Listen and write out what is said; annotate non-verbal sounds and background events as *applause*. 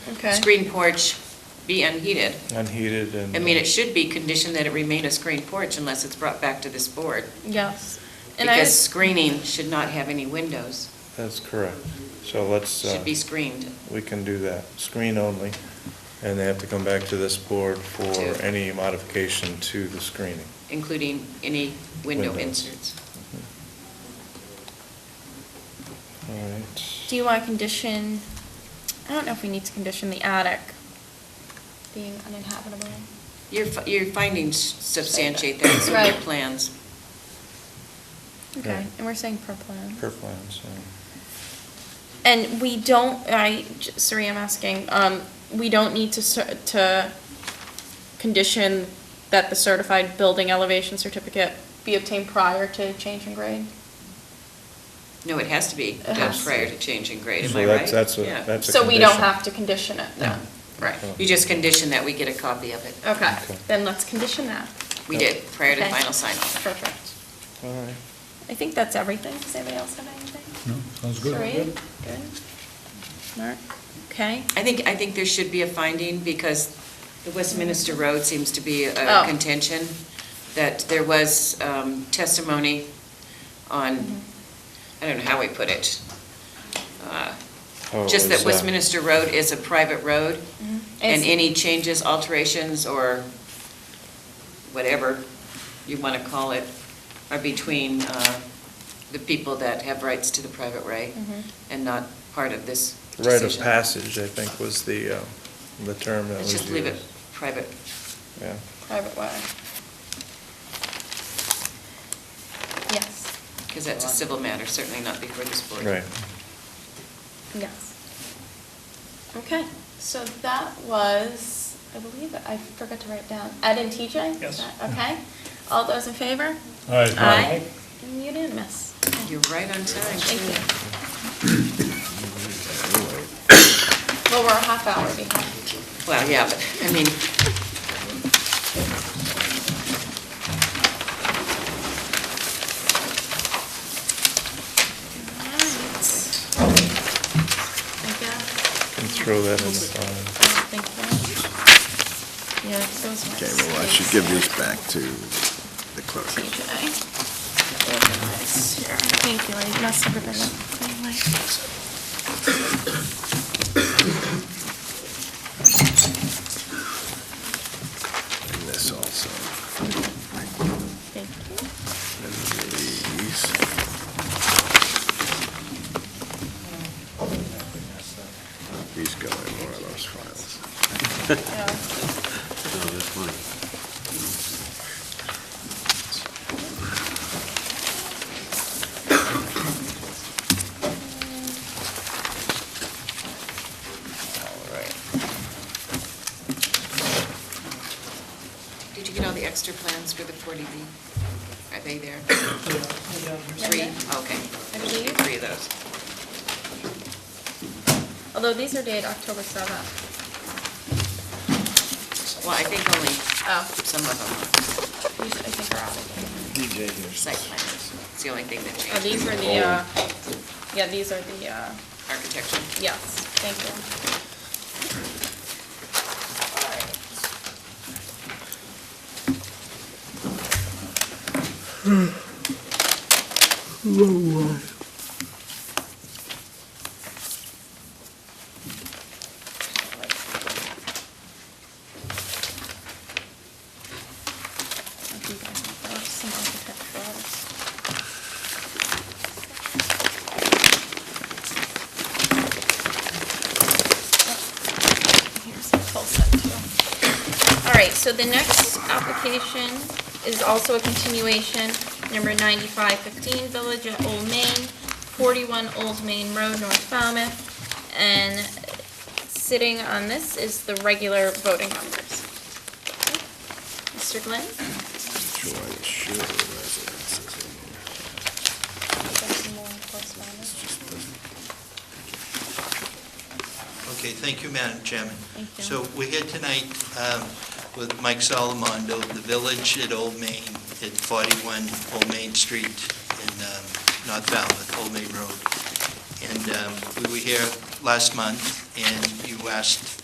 Okay. screen porch be unheated. unheated and. I mean, it should be conditioned that it remain a screen porch unless it's brought back to this board. Yes. And I, Because screening should not have any windows, uh, That's correct. So let's, uh, should be screened. we can do that, screen only. And they have to come back to this board for To- any modification to the screening. including any window Windows. inserts. All right. do you want to condition, I don't know if we need to condition the attic being uninhabitable. Your, fi- your findings substantiate that, so your Right. plans. Okay, Right. and we're saying per plan. Per plan, so, And we don't, I, j- sorry, I'm asking, um, we don't need to, cer- to condition that the certified building elevation certificate be obtained prior to change in grade? No, it has to be It done has to. prior to changing grade, am So I that's- right? that's Oh. a- Yeah. that's- a So we don't condition. have to condition it, though? No, right. You just condition that we get a copy of it. Okay, Okay. then let's condition that. Oh. We did, prior to Okay. final sign-off. Perfect. all right. I think that's everything. Does anybody else have anything? No, sounds good. Serene? Good? Mark? Okay. I think, I think there should be a finding, because the Westminster Road seems to be a Oh. contention, that there was um, testimony on, I don't know how we put it, uh, Oh, Just is that that- Westminster Road is a private road, and Mm-hmm. It's- any changes, alterations, or whatever you want to call it, are between uh, the people that have rights to the private right, Mhm. and not part of this Rite decision. of passage, I think, was the, uh, the term that Let's was used. just leave it private. Yeah. Private way. Yes, Because that's a civil matter, certainly not before this board. Right. yes. Okay, so that was, I believe, I forgot to write down, Ed and TJ? Is Yes. that Okay. All those in favor? Aye. And Unanimous. You're right on time. Thank too. you. *coughs* Well, we're a half hour behind. Well, yeah, but, I mean, Alright. I guess, Can throw that in the file. I don't think that. Yeah, those are. Okay, well, I should give these back to the clerk. TJ. Organize here. Thank you, I messed everything up. Anyway. And this also. Thank you. And these. These go in one of those files. Yeah. all right. Did you get all the extra plans for the 40B? Are they there? Three, Yeah. okay. I believe. Three of those. Although these are dated October seventh. Well, I think only Oh, some of them these I think are out of date. are site plans. It's the only thing that Oh, these changed. are the, uh, yeah, these are the, uh, Architecture. yes, thank you. If you guys have those, some architecturals. Here's a full set too. All right, so the next application is also a continuation, number 9515 Village at Old Main, 41 Old Main Road, North Falmouth. And sitting on this is the regular voting members. Mr. Glenn? Joint Shore residences. Okay, thank you, Madam Chairman. Thank you. So we're here tonight um, with Mike Salamondo, the village at Old Main, at 41 Old Main Street in um, North Falmouth, Old Main Road. And um, we were here last month, and you West